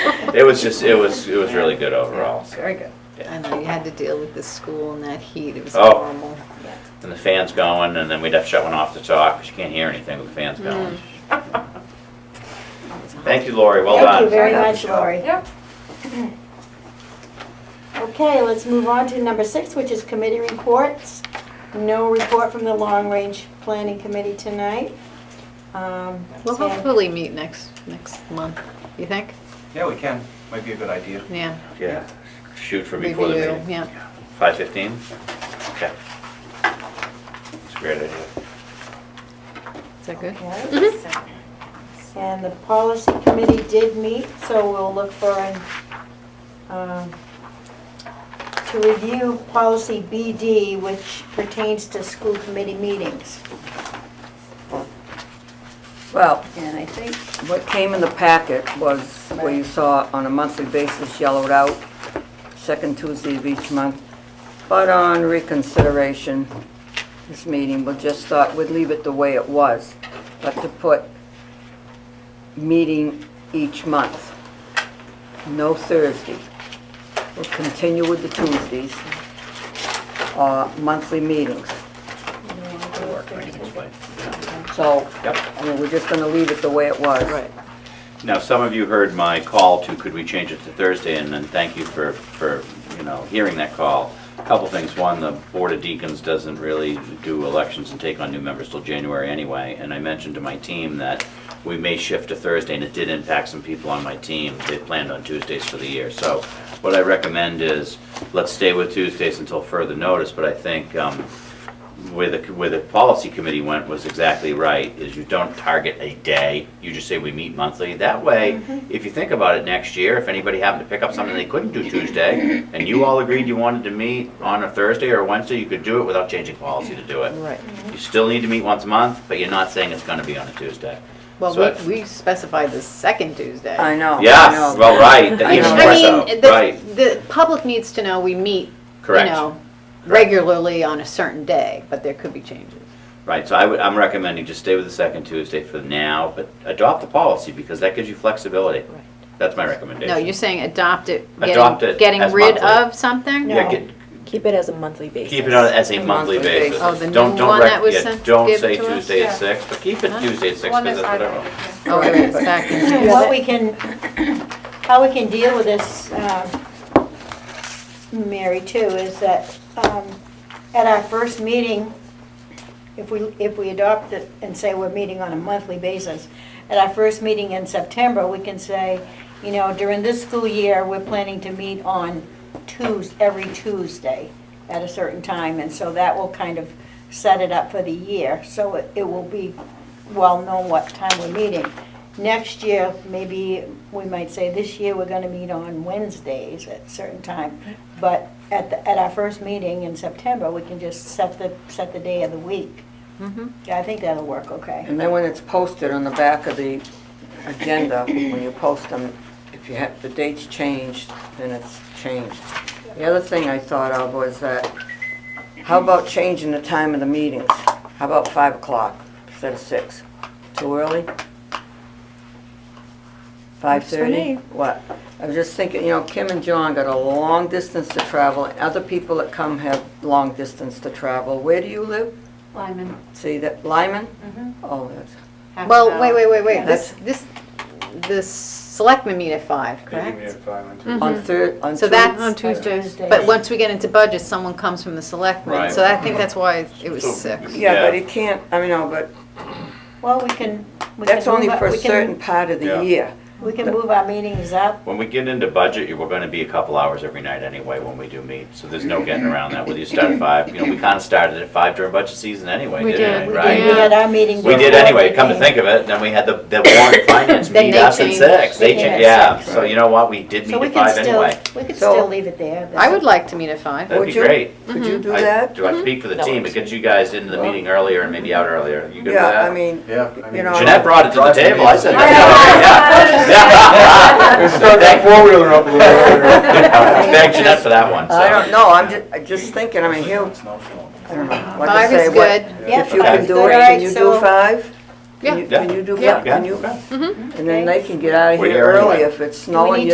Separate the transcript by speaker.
Speaker 1: It was just, it was, it was really good overall. so,
Speaker 2: Very good.
Speaker 1: yeah.
Speaker 3: I know, you had to deal with the school and that heat, it was
Speaker 1: Oh.
Speaker 3: horrible.
Speaker 2: Yeah.
Speaker 1: And the fan's going, and then we'd have to shut one off to talk, because you can't hear anything with the fans going. Thank you, Lori, well
Speaker 4: Thank you
Speaker 1: done.
Speaker 4: very much, Lori.
Speaker 2: Yep.
Speaker 4: Okay, let's move on to number six, which is committee reports. No report from the Long Range Planning Committee tonight. Um,
Speaker 3: We'll
Speaker 4: Sam-
Speaker 3: hopefully meet next, next month, you think?
Speaker 5: Yeah, we can. Might be a good idea.
Speaker 3: Yeah.
Speaker 1: Yeah, shoot for
Speaker 3: Maybe
Speaker 1: before the
Speaker 3: you,
Speaker 1: meeting.
Speaker 3: Yeah.
Speaker 1: Five fifteen? Okay. It's a great idea.
Speaker 3: Is that good?
Speaker 4: Okay.
Speaker 3: Mm-hmm.
Speaker 4: And the policy committee did meet, so we'll look for an, um, to review policy BD, which pertains to school committee meetings.
Speaker 2: Well, and I think what came in the packet was where you saw on a monthly basis yellowed out, second Tuesday of each month. But on reconsideration, this meeting, we just thought we'd leave it the way it was, but to put meeting each month, no Thursday. We'll continue with the Tuesdays, uh, monthly meetings.
Speaker 1: It'll work, I think, this way.
Speaker 3: So.
Speaker 1: Yep.
Speaker 3: I mean, we're just gonna leave it the way it was. Right.
Speaker 1: Now, some of you heard my call to, could we change it to Thursday, and then thank you for, for, you know, hearing that call. A Couple things, one, the Board of Deacons doesn't really do elections and take on new members till January anyway, and I mentioned to my team that we may shift to Thursday, and it did impact some people on my team, they planned on Tuesdays for the year, so what I recommend is, let's stay with Tuesdays until further notice, but I think, um, where the, where the policy committee went was exactly right, is you don't target a day, you just say we meet monthly. That way,
Speaker 3: Mm-hmm.
Speaker 1: if you think about it next year, if anybody happened to pick up something they couldn't do Tuesday, and you all agreed you wanted to meet on a Thursday or a Wednesday, you could do it without changing policy to do it.
Speaker 3: Right.
Speaker 1: You still need to meet once a month, but you're not saying it's gonna be on a Tuesday.
Speaker 3: Well,
Speaker 1: So-
Speaker 3: we, we specified the second Tuesday.
Speaker 2: I know. I
Speaker 1: Yes,
Speaker 2: know.
Speaker 1: well, right,
Speaker 3: Oh, I
Speaker 1: even
Speaker 3: know.
Speaker 1: more
Speaker 3: I mean,
Speaker 1: so, right,
Speaker 3: the, the public needs to know we meet, you
Speaker 1: correct.
Speaker 3: know, regularly on a certain day, but there could be changes.
Speaker 1: Right, so I would, I'm recommending just stay with the second Tuesday for now, but adopt the policy, because that gives you flexibility.
Speaker 3: Right.
Speaker 1: That's my recommendation.
Speaker 3: No, you're saying adopt it,
Speaker 1: Adopt
Speaker 3: getting,
Speaker 1: it
Speaker 3: getting
Speaker 1: as
Speaker 3: rid
Speaker 1: monthly.
Speaker 3: of something?
Speaker 1: Yeah, get-
Speaker 6: Keep it as a monthly basis.
Speaker 1: Keep it on as a monthly
Speaker 2: monthly
Speaker 1: basis.
Speaker 2: basis.
Speaker 3: Oh, the
Speaker 1: Don't-
Speaker 3: new
Speaker 1: don't
Speaker 3: one
Speaker 1: rec-
Speaker 3: that was
Speaker 1: yeah,
Speaker 3: sent-
Speaker 1: Don't
Speaker 3: given
Speaker 1: say
Speaker 3: to us?
Speaker 1: Tuesday at
Speaker 6: Yeah.
Speaker 1: six, but keep it Tuesday at six,
Speaker 6: One
Speaker 1: because
Speaker 6: that's
Speaker 1: that's what I
Speaker 6: on
Speaker 1: wrote.
Speaker 3: Oh, wait, it's back. in.
Speaker 4: What we can, how we can deal with this, um, Mary, too, is that um, at our first meeting, if we, if we adopt it and say we're meeting on a monthly basis, at our first meeting in September, we can say, you know, during this school year, we're planning to meet on Tues, every Tuesday at a certain time, and so that will kind of set it up for the year, so it it will be well known what time we're meeting. Next year, maybe, we might say, this year, we're gonna meet on Wednesdays at a certain time, but at, the- at our first meeting in September, we can just set the, set the day of the week. Yeah, I think that'll work, okay.
Speaker 2: And then when it's posted on the back of the agenda, when you post them, if you have, the date's changed, then it's changed. The other thing I thought of was that, how about changing the time of the meetings? How about five o'clock instead of six? Too early? Five
Speaker 6: for
Speaker 2: thirty?
Speaker 6: me.
Speaker 2: What? I was just thinking, you know, Kim and John got a long distance to travel, and other people that come have long distance to travel. Where do you live?
Speaker 3: Lyman.
Speaker 2: See that, Lyman? Oh, that's
Speaker 3: Well, wait, wait, wait, wait, this,
Speaker 2: That's-
Speaker 3: this, the selectmen meet at five, correct?
Speaker 1: Mm.
Speaker 2: on Thur, on
Speaker 3: So
Speaker 2: Tues-
Speaker 3: that's,
Speaker 4: Tuesdays.
Speaker 3: but once we get into budgets, someone comes from the selectmen,
Speaker 1: Right.
Speaker 3: so I think that's why it was
Speaker 1: So-
Speaker 3: six.
Speaker 2: Yeah, but
Speaker 1: Yeah.
Speaker 2: it can't, I mean, no, but
Speaker 4: Well, we can. we
Speaker 2: that's
Speaker 4: can
Speaker 2: only
Speaker 4: move our-
Speaker 2: for a
Speaker 4: we can-
Speaker 2: certain part of
Speaker 1: Yeah.
Speaker 2: the year.
Speaker 4: We can move our meetings up.
Speaker 1: When we get into budget, you- we're gonna be a couple hours every night anyway when we do meet, so there's no getting around that, whether you start at five, you know, we kinda started at five during budget season anyway,
Speaker 6: We
Speaker 1: didn't we,
Speaker 6: did,
Speaker 4: We
Speaker 1: right?
Speaker 4: had our meeting.
Speaker 1: We did
Speaker 4: before
Speaker 1: anyway,
Speaker 4: the
Speaker 1: come to
Speaker 4: meeting.
Speaker 1: think of it, then we had the, the warrant finance
Speaker 3: Then
Speaker 1: meet
Speaker 3: they
Speaker 1: us at
Speaker 3: changed.
Speaker 1: six, they
Speaker 4: They came
Speaker 1: changed,
Speaker 4: at
Speaker 1: yeah,
Speaker 4: six.
Speaker 1: so you know what, we did meet
Speaker 4: So we
Speaker 1: at
Speaker 4: can
Speaker 1: five
Speaker 4: still,
Speaker 1: anyway.
Speaker 4: we could
Speaker 2: So-
Speaker 4: still leave it there.
Speaker 3: I would like to meet at five.
Speaker 1: That'd
Speaker 2: Would
Speaker 1: be
Speaker 2: you-
Speaker 1: great.
Speaker 2: Could you do
Speaker 1: I-
Speaker 2: that?
Speaker 1: Do I speak for the
Speaker 6: That
Speaker 1: team, it
Speaker 6: works.
Speaker 1: gets you guys into the meeting earlier and maybe out earlier, you good with that?
Speaker 2: Yeah, I mean,
Speaker 5: Yeah.
Speaker 2: You know-
Speaker 1: Jeanette brought it to the
Speaker 5: Drive
Speaker 1: table, I said.
Speaker 5: me.
Speaker 1: "That's all right." Yeah. Yeah.
Speaker 5: four-wheeler up a little
Speaker 1: Thank Jeanette for that one,
Speaker 2: I don't
Speaker 1: so.
Speaker 2: know, I'm just, I'm just thinking, I mean, he'll, I don't know. like I
Speaker 3: Five is
Speaker 2: say, what-
Speaker 3: good.
Speaker 4: Yeah,
Speaker 2: If you
Speaker 4: five's
Speaker 2: can do
Speaker 4: good.
Speaker 2: it,
Speaker 4: Alright,
Speaker 2: can you do
Speaker 4: so-
Speaker 2: five? Can
Speaker 3: Yeah.
Speaker 2: you- Can you do
Speaker 3: Yeah.
Speaker 2: five, can you,
Speaker 1: Yeah.
Speaker 2: and then they can get out of
Speaker 1: We're
Speaker 2: here
Speaker 1: here anyway.
Speaker 2: early if it's snowing,
Speaker 4: need